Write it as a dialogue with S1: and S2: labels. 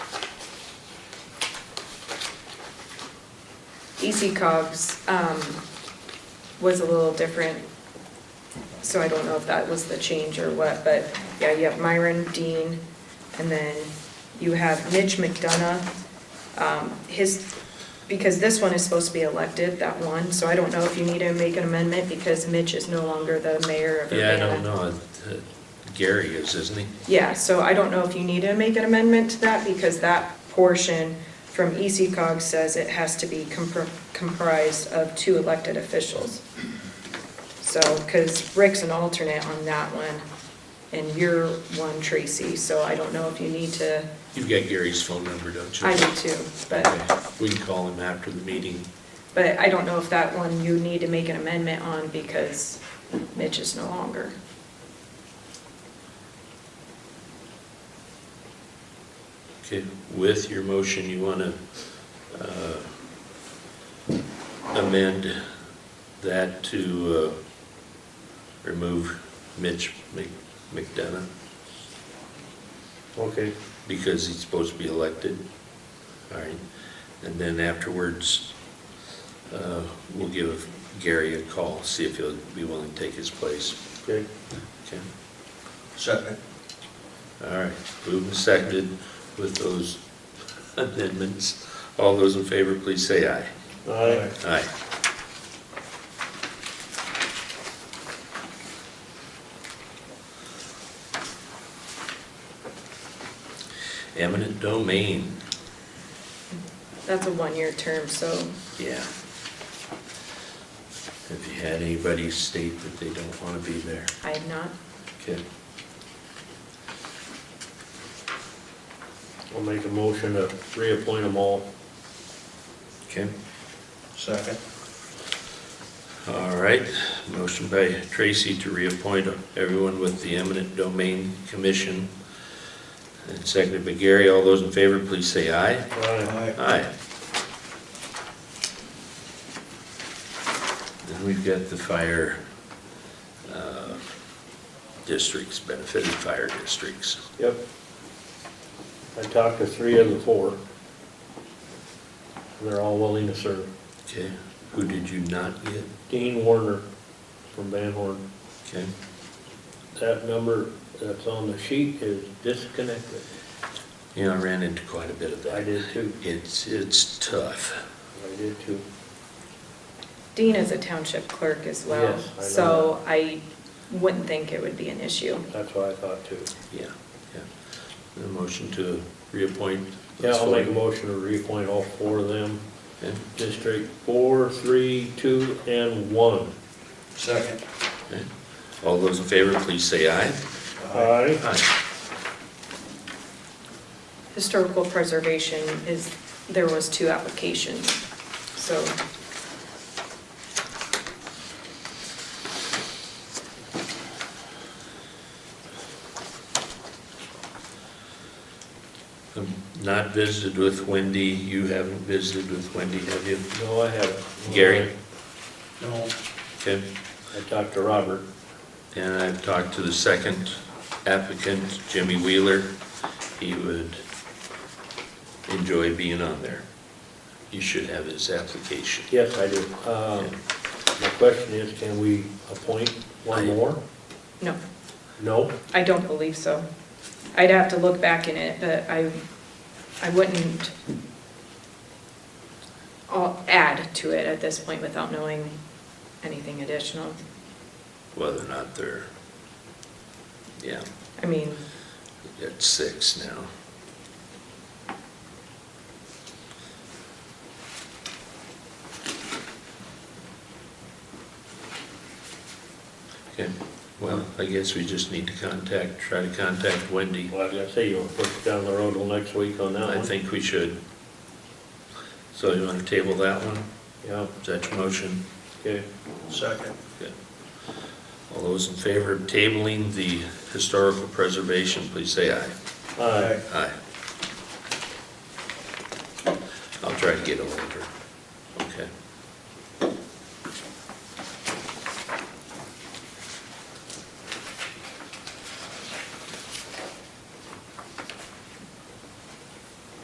S1: EC E cogs, um, was a little different. So I don't know if that was the change or what, but yeah, you have Myron Dean, and then you have Mitch McDonough. Um, his, because this one is supposed to be elected, that one, so I don't know if you need to make an amendment because Mitch is no longer the mayor of
S2: Yeah,
S1: Urbana.
S2: I don't know. Uh, Gary is, isn't he?
S1: Yeah, so I don't know if you need to make an amendment to that, because that portion from E EC cog says it has to be compr- comprised of two elected officials. So, because Rick's an alternate on that one, and you're one, Tracy, so I don't know if you need to,
S2: You've got Gary's phone number, don't you?
S1: I do too, but,
S2: Okay, We can call him after the meeting.
S1: but I don't know if that one you need to make an amendment on, because Mitch is no longer.
S2: Okay, with your motion, you want to amend that to uh, remove Mitch Mc- McDonough? Okay. Because he's supposed to be elected. All right. And then afterwards, uh, we'll give Gary a call, see if he'll be willing to take his place.
S3: Okay.
S2: Okay?
S3: Second.
S2: All right, moved and seconded with those amendments. All those in favor, please say aye.
S3: Aye.
S2: Aye. Eminent domain,
S1: That's a one-year term, so
S2: yeah. Have you had anybody state that they don't want to be there?
S1: I have not,
S2: Okay.
S3: I'll make a motion to reappoint them all.
S2: Okay.
S3: Second.
S2: All right, motion by Tracy to reappoint everyone with the eminent domain commission. And seconded by Gary, all those in favor, please say aye.
S3: Aye.
S2: Aye. Then we've got the fire uh, districts, benefited fire districts.
S3: Yep. I talked to three of the four. And they're all willing to serve.
S2: Okay, who did you not get?
S3: Dean Warner from Van Horn.
S2: Okay,
S3: That number that's on the sheet is disconnected.
S2: you know, I ran into quite a bit of
S3: I
S2: that.
S3: did too.
S2: It's, it's tough.
S3: I did too.
S1: Dean is a township clerk as well,
S3: Yes, I know
S1: so I wouldn't think it would be an issue.
S3: That's what I thought too.
S2: Yeah, yeah. A motion to reappoint.
S3: Yeah, I'll make a motion to reappoint all four of them.
S2: Okay,
S3: District four, three, two, and one.
S4: Second.
S2: okay. All those in favor, please say aye.
S3: Aye.
S2: Aye.
S1: Historical preservation is, there was two applications, so
S2: I've Um, Not visited with Wendy, you haven't visited with Wendy, have you?
S3: No, I haven't.
S2: Gary.
S4: No.
S2: Okay,
S3: I talked to Robert.
S2: and I've talked to the second applicant, Jimmy Wheeler. He would enjoy being on there. You should have his application.
S3: Yes, I do. Um, My question is, can we appoint one more?
S1: no,
S3: No?
S1: I don't believe so. I'd have to look back in it, but I, I wouldn't I'll add to it at this point without knowing anything additional.
S2: Whether or not they're, yeah,
S1: I mean,
S2: we got six now. Okay, well, I guess we just need to contact, try to contact Wendy.
S3: Well, I was gonna say, you'll push it down the road till next week on that one.
S2: I think we should. So you want to table that one?
S3: Yeah,
S2: Is that your motion?
S3: okay.
S4: Second.
S2: All those in favor of tabling the historical preservation, please say aye.
S3: Aye.
S2: Aye. I'll try to get a hold of her.